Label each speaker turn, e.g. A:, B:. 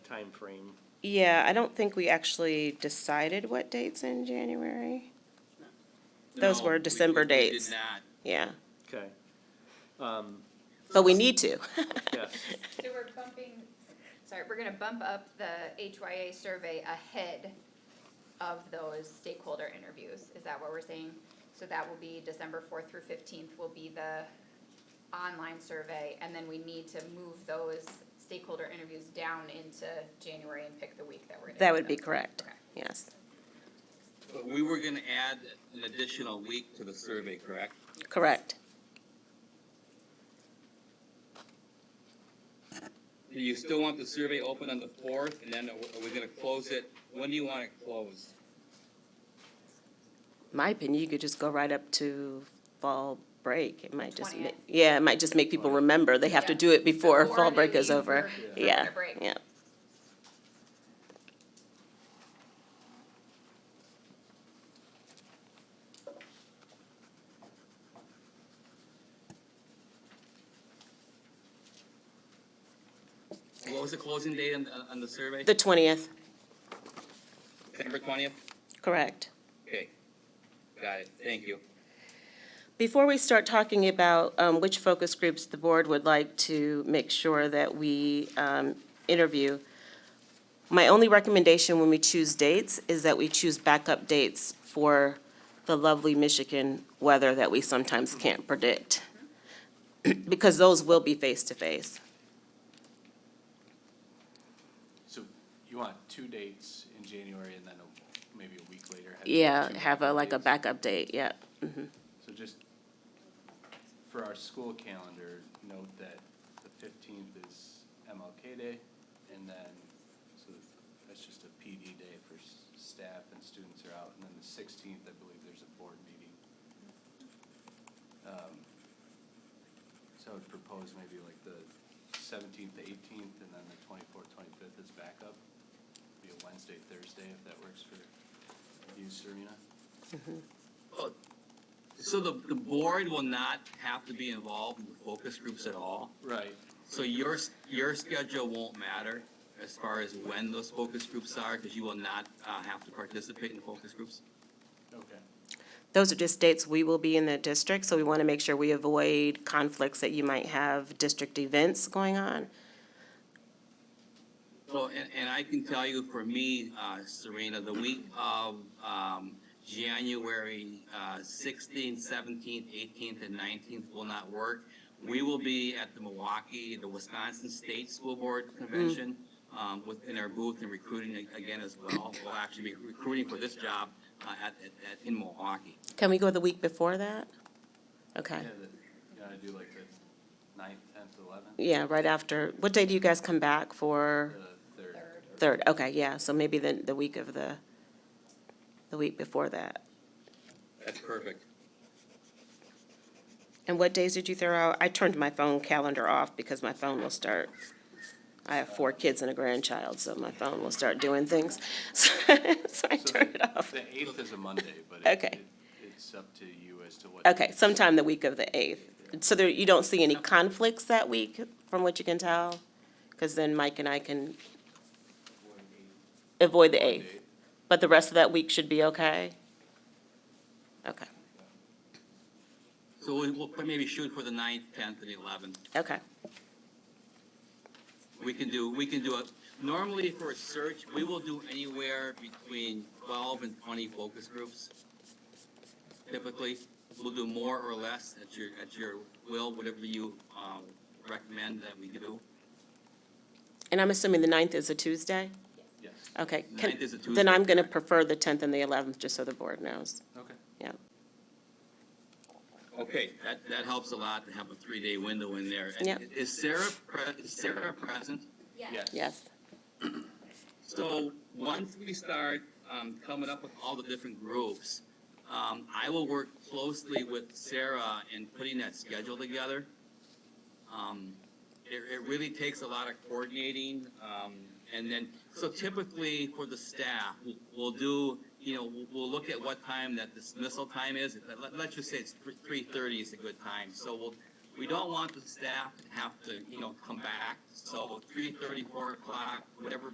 A: time frame.
B: Yeah, I don't think we actually decided what dates in January. Those
C: No,
B: were
C: we- we-
B: December
C: we did
B: dates.
C: not.
B: Yeah,
A: Okay,
B: but we need to.
A: yes,
D: So we're bumping, sorry, we're gonna bump up the HYA survey ahead of those stakeholder interviews, is that what we're saying? So that will be December fourth through fifteenth will be the online survey, and then we need to move those stakeholder interviews down into January and pick the week that we're gonna.
B: That
D: do
B: would be
D: them.
B: correct,
D: Okay.
B: yes.
C: But we were gonna add an additional week to the survey, correct?
B: Correct.
C: Do you still want the survey open on the fourth, and then are we- are we gonna close it? When do you want it closed?
B: My opinion, you could just go right up to fall break. It might just, ma-
D: 20th.
B: yeah, it might just make people remember. They have to
D: Yeah.
B: do it before
D: Before
B: fall
D: they
B: break is
D: leave
B: over.
D: for- for
B: Yeah,
D: their break.
B: yeah.
C: What was the closing date on, on the survey?
B: The twentieth,
C: December twentieth?
B: correct.
C: Okay, got it, thank you.
B: Before we start talking about um, which focus groups the board would like to make sure that we um, interview, my only recommendation when we choose dates is that we choose backup dates for the lovely Michigan weather that we sometimes can't predict, because those will be face-to-face.
E: So you want two dates in January and then a- maybe a week later? have
B: Yeah,
E: two
B: have a, like a
E: dates.
B: backup date, yeah.
E: So just for our school calendar, note that the fifteenth is MLK Day and then, so that's just a PD day for s- staff and students are out. And then the sixteenth, I believe there's a board meeting. Um, So I would propose maybe like the seventeenth, the eighteenth, and then the twenty-fourth, twenty-fifth is backup. Be a Wednesday, Thursday, if that works for you, Serena.
C: So the, the board will not have to be involved in the focus groups at all?
E: Right.
C: So your, s- your schedule won't matter as far as when those focus groups are, because you will not, uh, have to participate in focus groups?
E: Okay.
B: Those are just dates we will be in the district, so we want to make sure we avoid conflicts that you might have district events going on.
C: Well, and, and I can tell you for me, uh, Serena, the week of, um, January, uh, sixteenth, seventeenth, eighteenth, and nineteenth will not work. We will be at the Milwaukee, the Wisconsin State School Board Convention, um, within our booth and recruiting a- again as well. We'll actually be recruiting for this job, uh, at, at, at- in Milwaukee.
B: Can we go the week before that? Okay,
E: Yeah, the, you gotta do like the ninth, tenth, eleventh,
B: yeah, right after, what day do you guys come back for?
E: the third.
B: Third, okay, yeah, so maybe the, the week of the, the week before that.
C: That's perfect.
B: And what days did you throw out? I turned my phone calendar off because my phone will start, I have four kids and a grandchild, so my phone will start doing things. So I
E: So
B: turned it
E: the-
B: off.
E: The eighth is a Monday, but it,
B: Okay.
E: it, it's up to you as to what.
B: Okay, sometime the week of the 8th. So there, you don't see any conflicts that week, from what you can tell? Because then Mike and I can avoid the 8th.
E: date.
B: But the rest of that week should be okay? Okay,
C: So we- we'll maybe shoot for the ninth, tenth, and eleventh.
B: okay.
C: We can do, we can do it, normally for a search, we will do anywhere between twelve and twenty focus groups. Typically, we'll do more or less at your, at your will, whatever you, um, recommend that we do.
B: And I'm assuming the 9th is a Tuesday?
E: Yes,
B: Okay. can-
C: Ninth is a Tuesday.
B: Then I'm going to prefer the 10th and the 11th, just so the board knows.
E: okay.
B: Yeah,
C: Okay, that, that helps a lot to have a three-day window in there. And
B: Yep.
C: Is Sarah, pre- is Sarah present?
D: Yeah,
E: Yes.
B: yes.
C: So, once we start, um, coming up with all the different groups, um, I will work closely with Sarah in putting that schedule together. Um, it, it really takes a lot of coordinating, um, and then, so typically for the staff, we'll, we'll do, you know, we'll, we'll look at what time that dismissal time is, let, let's just say it's three thirty is a good time, so we'll, we don't want the staff to have to, you know, come back, so three thirty, four o'clock, whatever